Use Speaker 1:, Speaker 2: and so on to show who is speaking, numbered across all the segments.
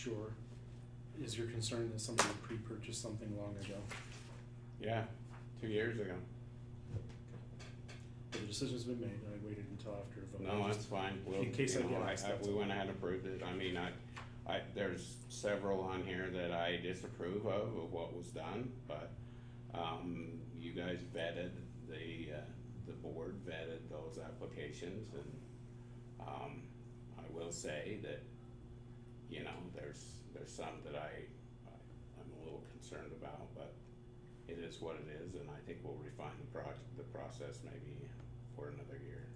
Speaker 1: Sure. Is your concern that somebody pre-purchased something long ago?
Speaker 2: Yeah, two years ago.
Speaker 1: But the decision's been made, and I waited until after a vote.
Speaker 2: No, that's fine. We'll,
Speaker 1: In case
Speaker 2: you
Speaker 1: I
Speaker 2: know,
Speaker 1: get asked, that's
Speaker 2: We
Speaker 1: all.
Speaker 2: went ahead and approved it. I mean, I, I, there's several on here that I disapprove of, of what was done, but, um, you guys vetted, the, uh, the board vetted those applications and, um, I will say that, you know, there's, there's some that I, I- I'm a little concerned about, but it is what it is, and I think we'll refine the project, the process maybe for another year.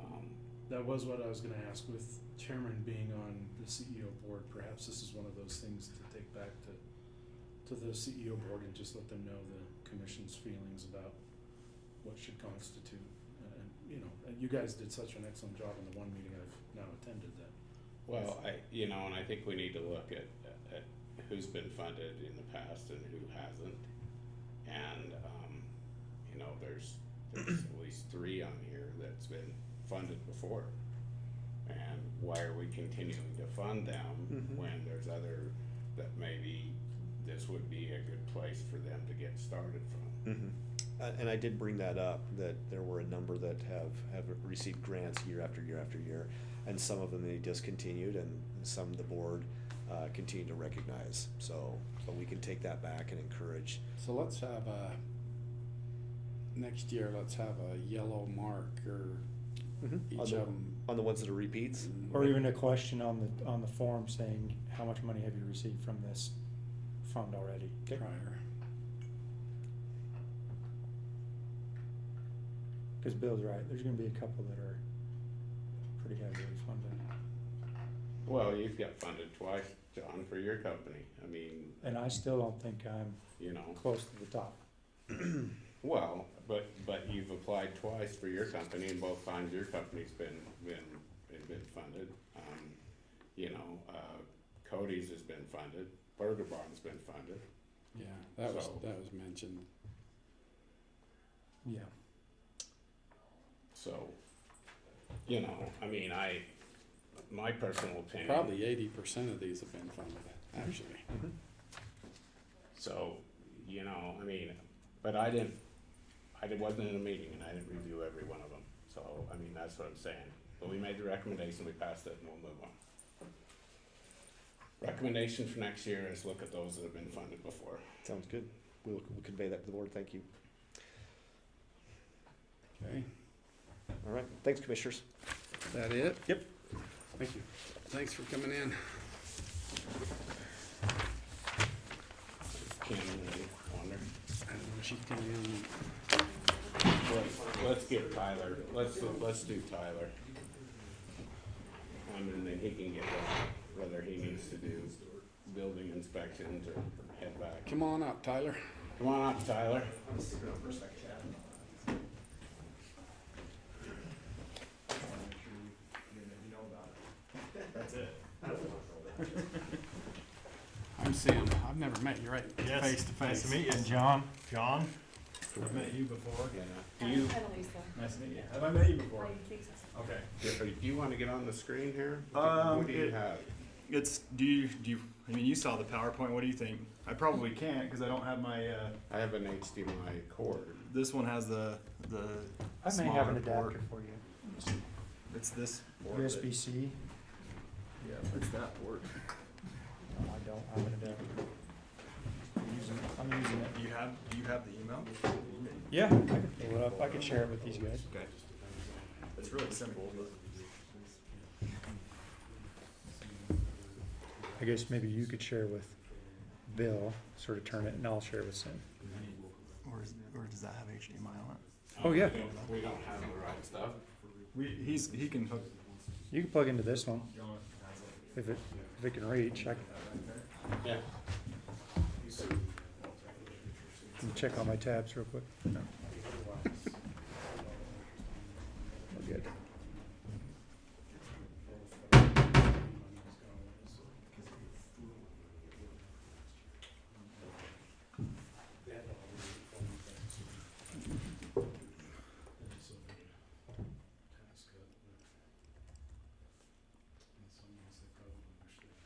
Speaker 2: Um,
Speaker 1: That was what I was gonna ask, with chairman being on the CEO board, perhaps this is one of those things to take back to, to the CEO board and just let them know the commission's feelings about what should constitute. Uh, And, you know, and you guys did such an excellent job in the one meeting I've now attended that.
Speaker 2: Well, I, you know, and I think we need to look at, at who's been funded in the past and who hasn't. And, um, you know, there's, there's at least three on here that's been funded before. And why are we continuing to fund them
Speaker 3: Mhm.
Speaker 2: when there's other, that maybe this would be a good place for them to get started from?
Speaker 3: Mhm. Uh, And I did bring that up, that there were a number that have, have received grants year after year after year. And some of them they discontinued and some the board uh, continued to recognize. So, so we can take that back and encourage.
Speaker 4: So let's have a, next year, let's have a yellow mark or each
Speaker 3: On
Speaker 4: of
Speaker 3: the,
Speaker 4: them.
Speaker 3: on the ones that are repeats.
Speaker 5: Or even a question on the, on the form saying, how much money have you received from this fund already?
Speaker 4: Prior.
Speaker 5: Cause Bill's right, there's gonna be a couple that are pretty heavily funded.
Speaker 2: Well, you've got funded twice, John, for your company. I mean,
Speaker 5: And I still don't think I'm
Speaker 2: you know.
Speaker 5: close to the top.
Speaker 2: Well, but, but you've applied twice for your company and both times your company's been, been, been funded. Um, You know, uh, Cody's has been funded, Burger Barn's been funded.
Speaker 4: Yeah, that was,
Speaker 2: So-
Speaker 4: that was mentioned.
Speaker 5: Yeah.
Speaker 2: So, you know, I mean, I, my personal opinion.
Speaker 4: Probably eighty percent of these have been funded, actually.
Speaker 2: So, you know, I mean, but I didn't, I did- wasn't in a meeting and I didn't review every one of them. So, I mean, that's what I'm saying. But we made the recommendation, we passed it and we'll move on. Recommendation for next year is look at those that have been funded before.
Speaker 3: Sounds good. We'll, we'll convey that to the board. Thank you.
Speaker 4: Okay,
Speaker 3: All right. Thanks, commissioners.
Speaker 4: is that it?
Speaker 3: Yep.
Speaker 4: Thank you. Thanks for coming in.
Speaker 2: Kim, you wonder?
Speaker 4: I don't know, she's coming in.
Speaker 2: Let's- Let's get Tyler, let's, let's do Tyler. I mean, then he can get what- whether he needs to do building inspections or head back.
Speaker 4: Come on up, Tyler.
Speaker 2: Come on up, Tyler.
Speaker 4: I'm Sam. I've never met you, right?
Speaker 6: Yes,
Speaker 4: Face to
Speaker 6: Nice to
Speaker 4: face.
Speaker 6: meet you, John. John?
Speaker 2: I've met
Speaker 6: you before.
Speaker 2: Yeah. Do
Speaker 7: I'm
Speaker 2: you,
Speaker 7: Annalisa.
Speaker 6: Nice to meet you. Have I met you
Speaker 7: I
Speaker 6: before?
Speaker 7: think so.
Speaker 6: Okay.
Speaker 2: do you wanna get on the screen here?
Speaker 6: Um,
Speaker 2: What do you
Speaker 6: it-
Speaker 2: have?
Speaker 6: It's, do you, do you, I mean, you saw the PowerPoint, what do you think? I probably can't, cause I don't have my, uh,
Speaker 2: I have an HDMI cord.
Speaker 6: this one has the, the
Speaker 5: I may have an
Speaker 6: smaller port.
Speaker 5: adapter for you,
Speaker 6: It's this port. that-
Speaker 5: USB-C,
Speaker 6: Yeah, it's that port.
Speaker 5: no, I don't have an adapter. I'm using, I'm using it.
Speaker 6: Do you have, do you have the email?
Speaker 5: Yeah, I could pull it up, I could share it with these guys.
Speaker 6: Okay. It's really simple, but.
Speaker 5: I guess maybe you could share with Bill, sort of turn it, and I'll share with Sam.
Speaker 6: Or is, or does that have HDMI on it?
Speaker 5: Oh, yeah.
Speaker 2: We don't- We don't have the right stuff.
Speaker 6: We, he's, he can hook.
Speaker 5: You can plug into this one, if it, if it can reach, I
Speaker 2: Yeah.
Speaker 5: can check on my tabs real quick.